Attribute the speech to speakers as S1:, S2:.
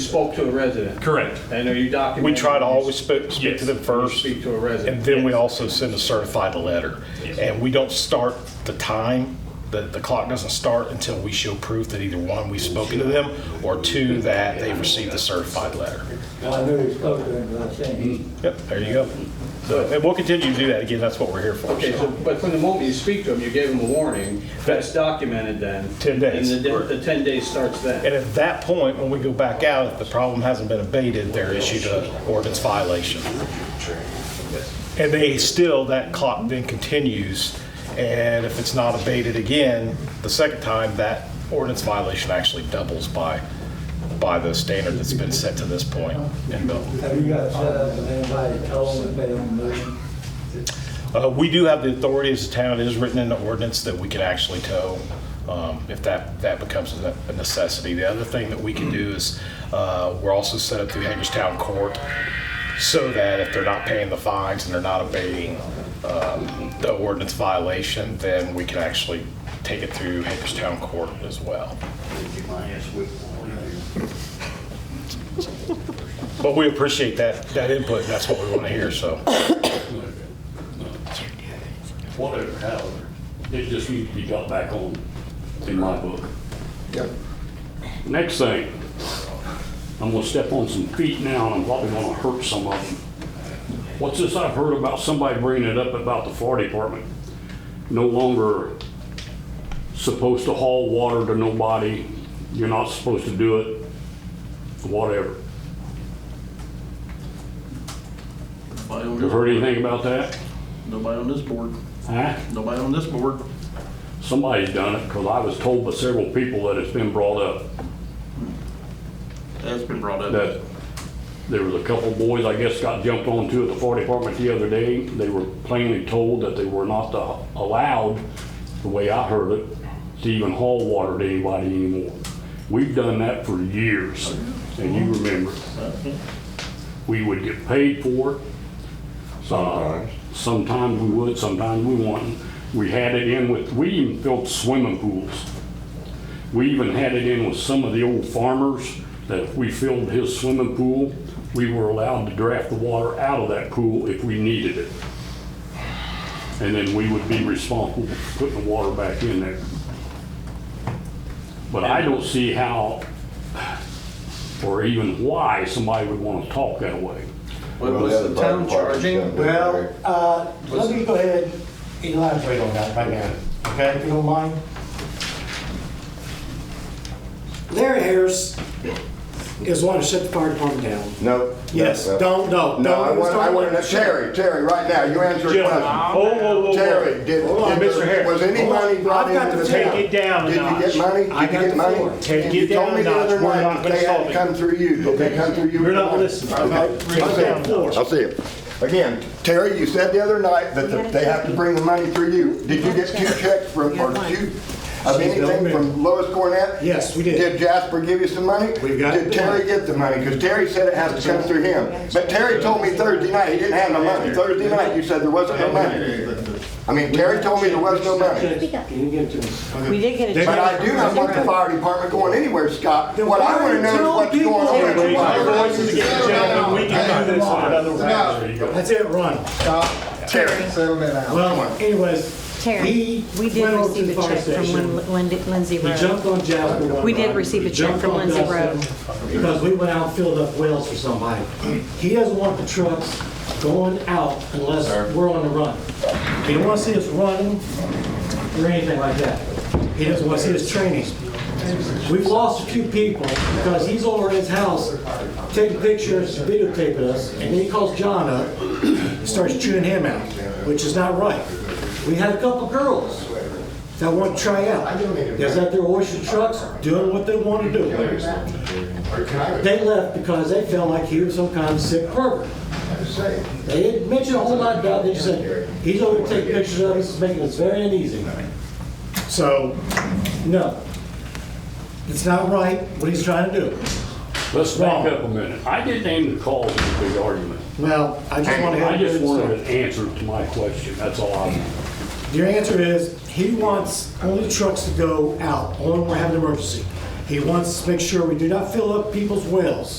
S1: spoke to a resident.
S2: Correct.
S1: And are you documenting?
S3: We try to
S1: when you
S3: always speak, speak
S2: Yes.
S3: to them first,
S1: Speak to a
S3: and
S1: resident.
S3: then we also send a certified letter. And we don't start the time, the, the clock doesn't start until we show proof that either one, we've spoken to them, or two, that they've received the certified letter.
S4: I knew he spoke to him, but I think
S3: Yep, there you go. So, and we'll continue to do that, again, that's what we're here for.
S1: Okay, so, but from the moment you speak to them, you gave them a warning, that's documented then.
S3: 10 days.
S1: And the, di- the 10 days starts then.
S3: And at that point, when we go back out, if the problem hasn't been abated, they're issued an ordinance violation. And they still, that clock then continues, and if it's not abated again, the second time, that ordinance violation actually doubles by, by the standard that's been set to this point in Milton.
S4: Have you got set up with anybody told him that they don't move?
S3: Uh, We do have the authority as a town, it is written in the ordinance that we can actually tow um, if that, that becomes a a necessity. The other thing that we can do is, uh, we're also set up through Hagerstown Court so that if they're not paying the fines and they're not obeying um, the ordinance violation, then we can actually take it through Hagerstown Court as well. But we appreciate that, that input, and that's what we want to hear, so.
S5: Whatever, however, it just needs to be got back on in my book. Next thing, I'm gonna step on some feet now and I'm probably gonna hurt some of them. What's this I've heard about somebody bringing it up about the fire department? No longer supposed to haul water to nobody, you're not supposed to do it, whatever.
S6: Nobody on
S5: You
S6: this,
S5: heard anything about that?
S6: nobody on this board,
S5: Huh?
S6: nobody on this board.
S5: Somebody's done it, because I was told by several people that it's been brought up,
S6: That's been brought up.
S5: that there was a couple boys, I guess, got jumped onto at the fire department the other day. They were plainly told that they were not to- allowed, the way I heard it, to even haul water to anybody anymore. We've done that for years, and you remember. We would get paid for it, Sometimes. Sometimes we would, sometimes we wouldn't. We had it in with, we even built swimming pools. We even had it in with some of the old farmers that if we filled his swimming pool, we were allowed to draft the water out of that pool if we needed it. And then we would be responsible for putting the water back in there. But I don't see how, or even why, somebody would want to talk that way.
S1: What was the town charging?
S7: Well,
S8: Uh, Let me go ahead and elaborate on that right now, okay, if you don't mind. Larry Harris is wanting to shut the fire department down.
S7: no.
S8: Yes,
S7: no, no.
S8: don't, no,
S7: No, I
S8: don't
S7: want, I
S8: start
S7: want,
S8: with-
S7: Terry, Terry, right now, you answer a
S2: Gentlemen,
S7: question.
S2: whoa, whoa, whoa, whoa.
S7: Terry, did,
S8: Hold on,
S7: did-
S2: Mr. Harris.
S7: was any
S8: Hold on.
S7: money brought
S8: I've got
S7: into the
S8: the
S7: town?
S8: floor.
S2: Take it down a
S7: Did you
S2: notch.
S7: get money? Did
S8: I
S7: you
S8: got
S7: get
S8: the
S7: money?
S8: floor.
S2: Take it
S7: You
S2: down
S7: told me the
S2: a
S7: other
S2: notch. We're
S7: night
S2: not gonna
S7: They had
S2: solve
S7: to
S2: it.
S7: come through you. Did they come through you?
S2: You're not
S7: Okay.
S2: listening.
S7: Okay.
S2: Bring it down a notch.
S7: I'll see it. Again, Terry, you said the other night that the- they have to bring the money through you. Did you get two checks from, or two, of anything from Lois Cornett?
S8: Yes, we did.
S7: Did Jasper give you some money?
S8: We got
S7: Did
S8: the
S7: Terry
S8: money.
S7: get the money? Because Terry said it has to come through him. But Terry told me Thursday night he didn't have no money. Thursday night, you said there wasn't no money. I mean, Terry told me there was no money.
S8: Can you give it to us?
S9: We did get a.
S7: But I do not want the fire department going anywhere, Scott. What I want to know is what's going on with the
S2: Raise your
S7: fire.
S2: voices again, gentlemen, we can do this on another round. There you go.
S8: That's it, run.
S7: Terry, settle that out.
S8: Well, anyways,
S9: Terry,
S8: he
S9: we did
S8: went over to
S9: receive
S8: the
S9: a
S8: fire
S9: check from
S8: station.
S9: Lin- Lin- Lindsay
S8: He
S9: Road.
S8: jumped on Jasper one
S9: We did
S8: night.
S9: receive a
S8: He
S9: check
S8: jumped
S9: from
S8: on
S9: Lindsay
S8: Dustin
S9: Road.
S8: Because we went out and filled up wells for somebody. He doesn't want the trucks going out unless we're on the run. He don't want to see us running or anything like that. He doesn't want to see us training. We've lost a few people because he's over at his house taking pictures, videotaping us, and then he calls John up, starts chewing him out, which is not right. We had a couple girls that want to try out. There's out there washing trucks, doing what they want to do. They left because they felt like he was some kind of sick pervert. They didn't mention a whole lot about it, they just said, he's over to take pictures of us, it's making us very uneasy. So, no, it's not right what he's trying to do.
S5: Let's back up a minute. I didn't aim to cause a big argument.
S8: Well, I just want to
S5: I
S8: have a
S5: just
S8: good
S5: wanted
S8: story.
S5: an answer to my question, that's all I want.
S8: Your answer is, he wants only trucks to go out, only when we have an emergency. He wants to make sure we do not fill up people's wells.